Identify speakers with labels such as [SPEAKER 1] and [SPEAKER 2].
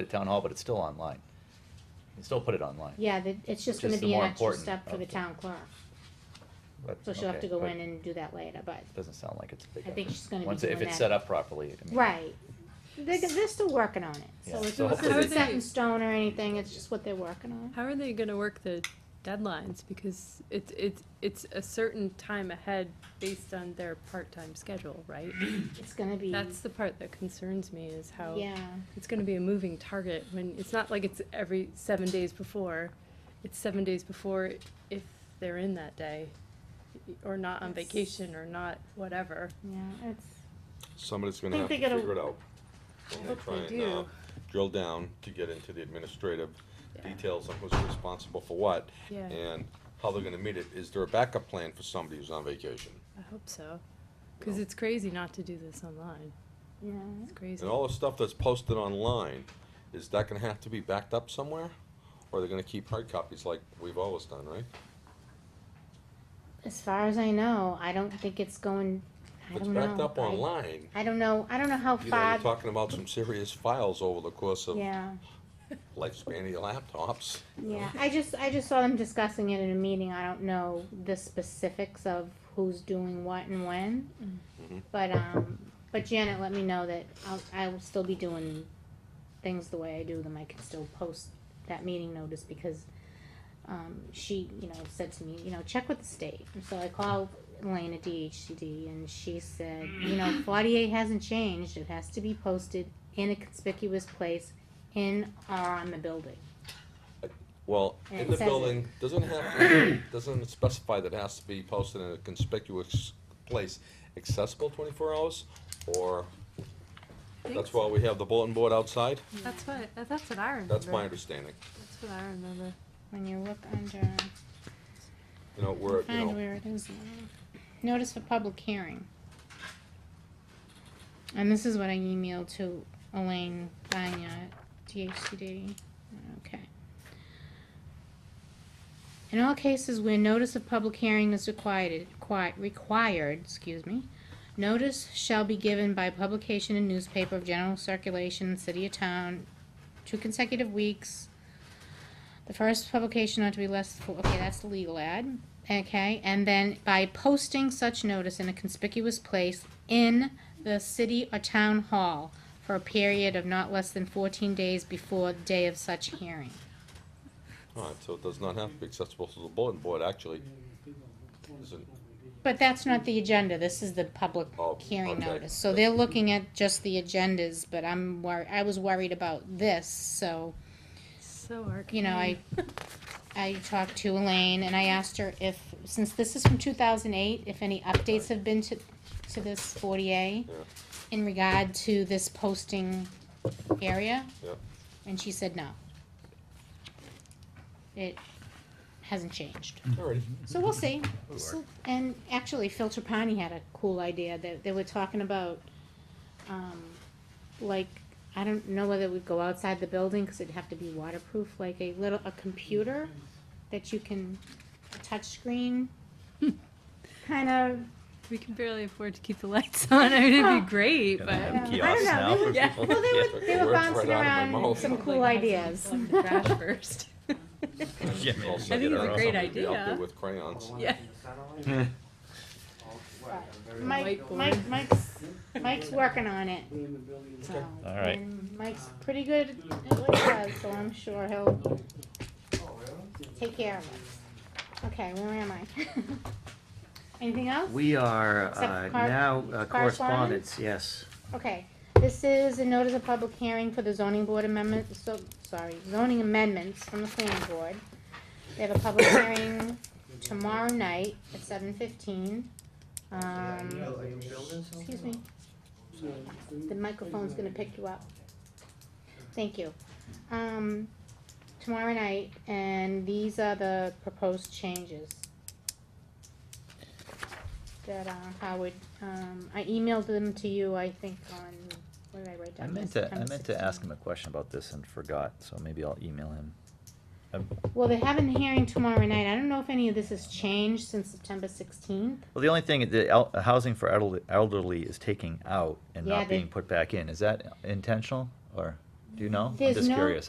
[SPEAKER 1] at town hall, but it's still online. You can still put it online.
[SPEAKER 2] Yeah, the- it's just
[SPEAKER 1] Which is
[SPEAKER 2] gonna
[SPEAKER 1] the
[SPEAKER 2] be an
[SPEAKER 1] more
[SPEAKER 2] extra
[SPEAKER 1] important
[SPEAKER 2] step for the
[SPEAKER 1] of the-
[SPEAKER 2] town clerk,
[SPEAKER 1] but-
[SPEAKER 2] so she'll have
[SPEAKER 1] okay,
[SPEAKER 2] to go
[SPEAKER 1] but
[SPEAKER 2] in and do that later, but,
[SPEAKER 1] it Doesn't sound like it's a big.
[SPEAKER 2] I think
[SPEAKER 1] effort.
[SPEAKER 2] she's gonna be
[SPEAKER 1] Once- If
[SPEAKER 2] doing
[SPEAKER 1] it's
[SPEAKER 2] that.
[SPEAKER 1] set up properly. I mean,
[SPEAKER 2] right. They're, they're still working on it,
[SPEAKER 1] Yeah,
[SPEAKER 2] so it's
[SPEAKER 1] so
[SPEAKER 2] not
[SPEAKER 1] hopefully they-
[SPEAKER 2] set in stone or anything, it's just what they're working on.
[SPEAKER 3] How are they gonna work the deadlines? Because it's, it's, it's a certain time ahead based on their part-time schedule, right?
[SPEAKER 2] It's gonna be,
[SPEAKER 3] That's the part that concerns me is how
[SPEAKER 2] yeah,
[SPEAKER 3] it's gonna be a moving target when, it's not like it's every seven days before. It's seven days before if they're in that day, or not on
[SPEAKER 2] That's-
[SPEAKER 3] vacation, or not whatever.
[SPEAKER 2] yeah, it's,
[SPEAKER 4] Somebody's gonna
[SPEAKER 2] I
[SPEAKER 4] have
[SPEAKER 2] think
[SPEAKER 4] to
[SPEAKER 2] they gotta-
[SPEAKER 4] figure it out.
[SPEAKER 3] I
[SPEAKER 4] And
[SPEAKER 3] hope
[SPEAKER 4] try
[SPEAKER 3] they
[SPEAKER 4] and, uh,
[SPEAKER 3] do.
[SPEAKER 4] Drill down to get into the administrative
[SPEAKER 3] Yeah.
[SPEAKER 4] details on who's responsible for what.
[SPEAKER 3] Yeah.
[SPEAKER 4] And how they're gonna meet it. Is there a backup plan for somebody who's on vacation?
[SPEAKER 3] I hope so, cause it's crazy not to do this online.
[SPEAKER 2] yeah,
[SPEAKER 3] It's crazy.
[SPEAKER 4] And all the stuff that's posted online, is that gonna have to be backed up somewhere? Or they're gonna keep hard copies like we've always done, right?
[SPEAKER 2] as far as I know, I don't think it's going, I
[SPEAKER 4] If it's
[SPEAKER 2] don't know.
[SPEAKER 4] backed up
[SPEAKER 2] I-
[SPEAKER 4] online,
[SPEAKER 2] I don't know, I don't know how
[SPEAKER 4] you know, you're
[SPEAKER 2] far,
[SPEAKER 4] talking about some serious files over the course of
[SPEAKER 2] yeah.
[SPEAKER 4] lifespan of your laptops.
[SPEAKER 2] Yeah, I just, I just saw them discussing it in a meeting, I don't know the specifics of who's doing what and when.
[SPEAKER 4] Mhm.
[SPEAKER 2] But, um, but Janet let me know that I'll, I will still be doing things the way I do them, I can still post that meeting notice because, um, she, you know, said to me, you know, check with the state, and so I called Elaine at DHCD and she said, you know, forty-eight hasn't changed, it has to be posted in a conspicuous place in or on the building.
[SPEAKER 4] Well,
[SPEAKER 2] And
[SPEAKER 4] in
[SPEAKER 2] it
[SPEAKER 4] the
[SPEAKER 2] says it.
[SPEAKER 4] building, doesn't have, to- doesn't it specify that it has to be posted in a conspicuous place accessible twenty-four hours? Or, that's why we have the bulletin board outside?
[SPEAKER 3] That's what, that's what I remember.
[SPEAKER 4] That's my understanding.
[SPEAKER 3] That's what I remember.
[SPEAKER 2] When you look under,
[SPEAKER 4] You know, where, you
[SPEAKER 2] find
[SPEAKER 4] know,
[SPEAKER 2] where it is. now. Notice for public hearing. And this is what I emailed to Elaine Banya, DHCD, okay. In all cases where notice of public hearing is required, qui- required, excuse me, notice shall be given by publication in newspaper of general circulation in city or town, two consecutive weeks, the first publication ought to be less, fo- okay, that's the legal ad, okay, and then by posting such notice in a conspicuous place in the city or town hall for a period of not less than fourteen days before the day of such hearing.
[SPEAKER 4] alright, so it does not have to be accessible to the bulletin board, actually. Isn't-
[SPEAKER 2] But that's not the agenda, this is the public
[SPEAKER 4] Oh,
[SPEAKER 2] hearing
[SPEAKER 4] okay.
[SPEAKER 2] notice, so they're looking at just the agendas, but I'm wor- I was worried about this, so.
[SPEAKER 3] So arcane.
[SPEAKER 2] you know, I, I talked to Elaine and I asked her if, since this is from two thousand eight, if any updates have been to, to this forty A
[SPEAKER 4] Yeah.
[SPEAKER 2] in regard to this posting area?
[SPEAKER 4] Yeah.
[SPEAKER 2] And she said no. It hasn't changed.
[SPEAKER 4] Alrighty,
[SPEAKER 2] So we'll see. So- And actually, Phil Trapani had a cool idea that they were talking about, um, like, I don't know whether it would go outside the building, cause it'd have to be waterproof, like a little, a computer that you can, a touchscreen, kind of,
[SPEAKER 3] We can barely afford to keep the lights on. I mean, it'd be great,
[SPEAKER 1] Yeah,
[SPEAKER 3] but
[SPEAKER 1] they
[SPEAKER 2] Yeah.
[SPEAKER 1] have
[SPEAKER 2] I
[SPEAKER 1] kiosks
[SPEAKER 2] don't know.
[SPEAKER 1] now.
[SPEAKER 2] They
[SPEAKER 3] Yeah.
[SPEAKER 2] were- well, they were, they were
[SPEAKER 4] Words right
[SPEAKER 2] bouncing
[SPEAKER 4] out of my
[SPEAKER 2] around
[SPEAKER 4] mouth.
[SPEAKER 2] some
[SPEAKER 3] Like,
[SPEAKER 2] cool
[SPEAKER 3] how's it
[SPEAKER 2] ideas.
[SPEAKER 3] like the Crash first.
[SPEAKER 1] Yeah.
[SPEAKER 4] I'll
[SPEAKER 1] I
[SPEAKER 3] think
[SPEAKER 4] send it
[SPEAKER 3] it's a
[SPEAKER 4] around.
[SPEAKER 3] great
[SPEAKER 4] Somebody Out there
[SPEAKER 3] idea.
[SPEAKER 4] with crayons.
[SPEAKER 3] Yeah.
[SPEAKER 2] Mike, Mike, Mike's, Mike's working on it, so.
[SPEAKER 1] All right.
[SPEAKER 2] and Mike's pretty good at what he does, so I'm sure he'll take care of us. Okay, where am I? Anything else?
[SPEAKER 5] We are
[SPEAKER 2] Except
[SPEAKER 5] uh,
[SPEAKER 2] cor-
[SPEAKER 5] now uh,
[SPEAKER 2] correspondence?
[SPEAKER 5] correspondence, yes.
[SPEAKER 2] Okay, this is a notice of public hearing for the zoning board amendment, so, sorry, zoning amendments from the planning board. They have a public hearing tomorrow night at seven fifteen. Um, excuse me, the microphone's gonna pick you up. Thank you. Um, tomorrow night, and these are the proposed changes. That, uh, Howard, um, I emailed them to you, I think, on, what did I write
[SPEAKER 1] I
[SPEAKER 2] down?
[SPEAKER 1] meant to, I
[SPEAKER 2] September
[SPEAKER 1] meant to ask him
[SPEAKER 2] 16.
[SPEAKER 1] a question about this and forgot, so maybe I'll email him. Um,
[SPEAKER 2] Well, they have a hearing tomorrow night, I don't know if any of this has changed since September sixteenth.
[SPEAKER 1] Well, the only thing, the el- housing for elderly- elderly is taking out and
[SPEAKER 2] Yeah,
[SPEAKER 1] not
[SPEAKER 2] they-
[SPEAKER 1] being put back in. Is that intentional or? Do you know? I'm
[SPEAKER 2] There's
[SPEAKER 1] just
[SPEAKER 2] no-
[SPEAKER 1] curious.